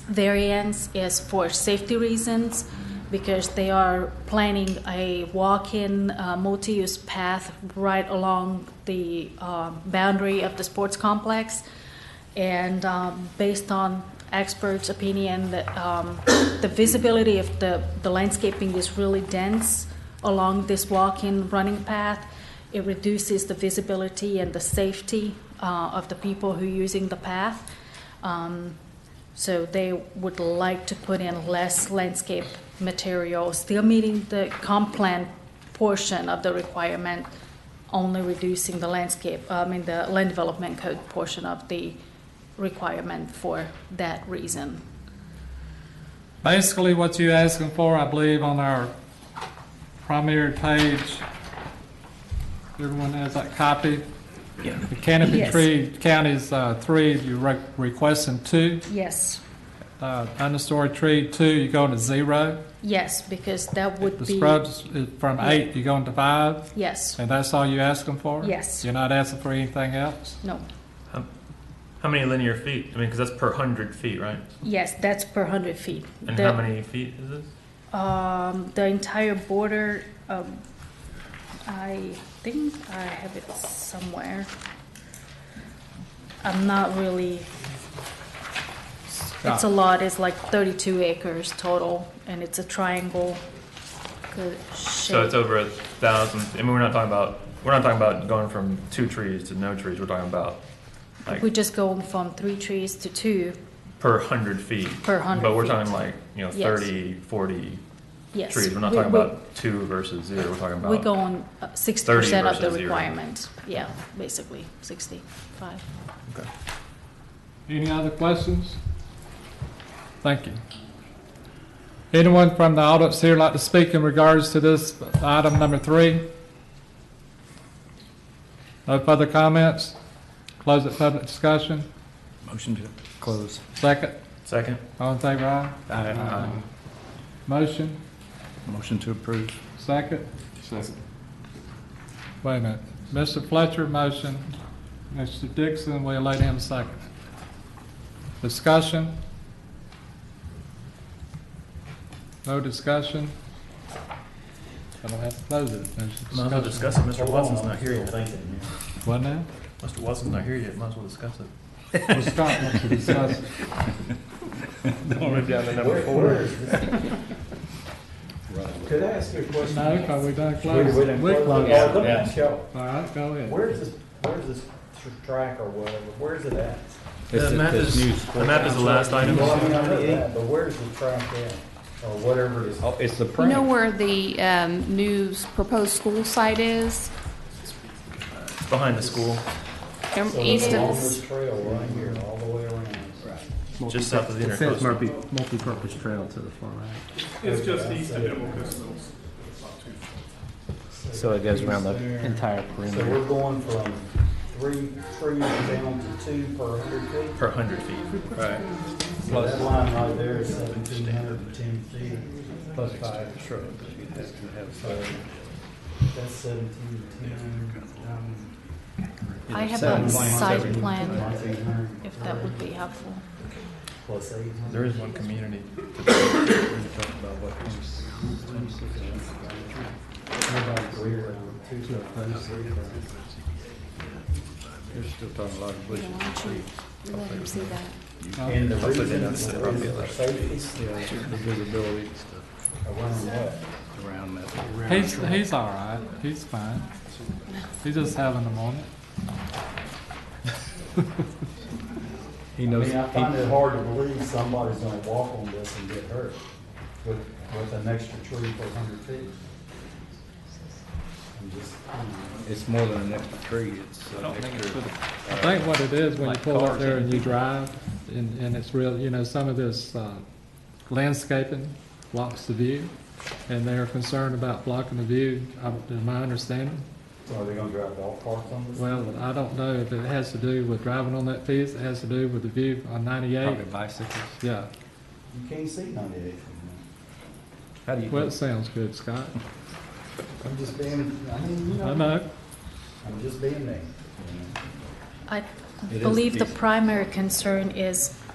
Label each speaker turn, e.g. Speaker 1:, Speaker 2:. Speaker 1: variance is for safety reasons because they are planning a walk-in uh, multi-use path right along the um, boundary of the sports complex. And um, based on experts' opinion, that um, the visibility of the, the landscaping is really dense along this walk-in running path. It reduces the visibility and the safety uh, of the people who are using the path. Um, so they would like to put in less landscape material, still meeting the comp plan portion of the requirement, only reducing the landscape, I mean, the land development code portion of the requirement for that reason.
Speaker 2: Basically, what you're asking for, I believe, on our primary page, everyone has that copy. The canopy
Speaker 1: Yes.
Speaker 2: tree count is uh, three, you're re- requesting two.
Speaker 1: Yes,
Speaker 2: Uh, Understory tree, two, you're going to zero.
Speaker 1: yes, because that
Speaker 2: The
Speaker 1: would be,
Speaker 2: scrubs is from eight, you're going to five,
Speaker 1: yes,
Speaker 2: and that's all you're asking for?
Speaker 1: Yes.
Speaker 2: You're not asking for anything else?
Speaker 1: no,
Speaker 3: How many linear feet? I mean, because that's per hundred feet, right?
Speaker 1: yes, that's per hundred feet.
Speaker 3: And
Speaker 1: The-
Speaker 3: how many feet is this?
Speaker 1: Um, the entire border, um, I think I have it somewhere. I'm not really, it's a
Speaker 2: Ah.
Speaker 1: lot, it's like thirty-two acres total, and it's a triangle. good
Speaker 3: So it's
Speaker 1: shape.
Speaker 3: over a thousand. I mean, we're not talking about we're not talking about going from two trees to no trees. We're talking about like
Speaker 1: We're just going from three trees to two,
Speaker 3: per hundred feet.
Speaker 1: Per 100
Speaker 3: But we're
Speaker 1: feet.
Speaker 3: talking like you know
Speaker 1: Yes.
Speaker 3: 30, 40
Speaker 1: yes.
Speaker 3: trees. We're not
Speaker 1: We-
Speaker 3: talking
Speaker 1: we-
Speaker 3: about two versus zero. We're talking about
Speaker 1: We go on uh, sixty percent of the
Speaker 3: versus zero.
Speaker 1: requirement, yeah, basically, sixty-five.
Speaker 3: Okay.
Speaker 2: Any other questions? Thank you. Anyone from the audience here like to speak in regards to this item number three? No further comments? Close the public discussion.
Speaker 4: Motion to close.
Speaker 2: Second,
Speaker 3: Second.
Speaker 2: all in favor, aye.
Speaker 3: Uh,
Speaker 4: Aye.
Speaker 2: Motion,
Speaker 4: Motion to approve.
Speaker 2: second? Wait a minute. Mr. Fletcher, motion. Mr. Dixon, we'll let him second. Discussion? No discussion? I don't have to close it.
Speaker 3: Might as well discuss it. Mr. Watson's not here yet.
Speaker 2: What now?
Speaker 3: Mr. Watson's not here yet. Might as well discuss it.
Speaker 2: Well, Scott wants to discuss. it.
Speaker 5: Where- where is this? Could I ask you a question?
Speaker 2: No, because we done
Speaker 5: Wait,
Speaker 2: closed.
Speaker 5: wait,
Speaker 2: it.
Speaker 5: wait.
Speaker 2: We
Speaker 5: Oh,
Speaker 2: closed. it.
Speaker 5: Let me ask y'all,
Speaker 2: All right, go ahead.
Speaker 5: where's this, where's this tr- track or whatever, where's it at?
Speaker 3: The map is the map is the last item.
Speaker 5: Well, I mean, I heard that, But where's the track at, or whatever it is?
Speaker 4: Oh, it's the
Speaker 6: You know where the um, new s- proposed school site is?
Speaker 3: It's behind the school,
Speaker 6: Um,
Speaker 5: So
Speaker 6: East
Speaker 5: it's along this
Speaker 6: of,
Speaker 5: trail right here, all the way around. Right.
Speaker 3: just south of the
Speaker 7: It says
Speaker 3: intercoastal.
Speaker 7: multi, multi-purpose trail to the far right.
Speaker 5: It's just east of Democus.
Speaker 4: So it goes around the entire
Speaker 5: So
Speaker 4: perimeter.
Speaker 5: we're going from three trees down to two per hundred feet?
Speaker 3: Per hundred feet. Right.
Speaker 5: So that line right there is seventeen hundred and ten feet, plus five shrubs. So That's seventeen ten, um,
Speaker 1: I have
Speaker 4: Seven
Speaker 1: a
Speaker 4: point
Speaker 1: site
Speaker 4: seven.
Speaker 1: plan,
Speaker 5: eight hundred
Speaker 1: if that would be helpful.
Speaker 5: plus eight hundred.
Speaker 3: There is one community.
Speaker 5: Three round, two round, three round.
Speaker 6: you know, why don't you let him see that?
Speaker 5: And the reason is for safety. Around what?
Speaker 2: He's, he's all right. He's fine. He's just having a moment.
Speaker 4: He
Speaker 5: I
Speaker 4: knows,
Speaker 5: mean, I find it hard to believe somebody's gonna walk on this and get hurt with, with an extra tree for hundred feet. I'm just, you
Speaker 4: it's more than an extra tree, it's
Speaker 2: I
Speaker 4: an
Speaker 2: don't think it's
Speaker 4: extra.
Speaker 2: for the- I think what it is, when you
Speaker 4: Like
Speaker 2: pull up
Speaker 4: cars,
Speaker 2: there and you
Speaker 4: anything.
Speaker 2: drive, and, and it's real, you know, some of this uh, landscaping blocks the view, and they're concerned about blocking the view, uh, in my understanding.
Speaker 5: know, are they gonna drive golf carts on this?
Speaker 2: Well, I don't know if it has to do with driving on that piece, it has to do with the view on
Speaker 4: Probably
Speaker 2: ninety-eight,
Speaker 4: bicycles.
Speaker 2: yeah.
Speaker 5: You can't see ninety-eight from
Speaker 4: How do
Speaker 2: Well,
Speaker 4: you,
Speaker 2: it sounds good, Scott.
Speaker 5: there. I'm just being, I mean, you
Speaker 2: I
Speaker 5: know,
Speaker 2: know,
Speaker 5: I'm just being me.
Speaker 1: I
Speaker 4: It is
Speaker 1: believe the
Speaker 4: decent.
Speaker 1: primary concern is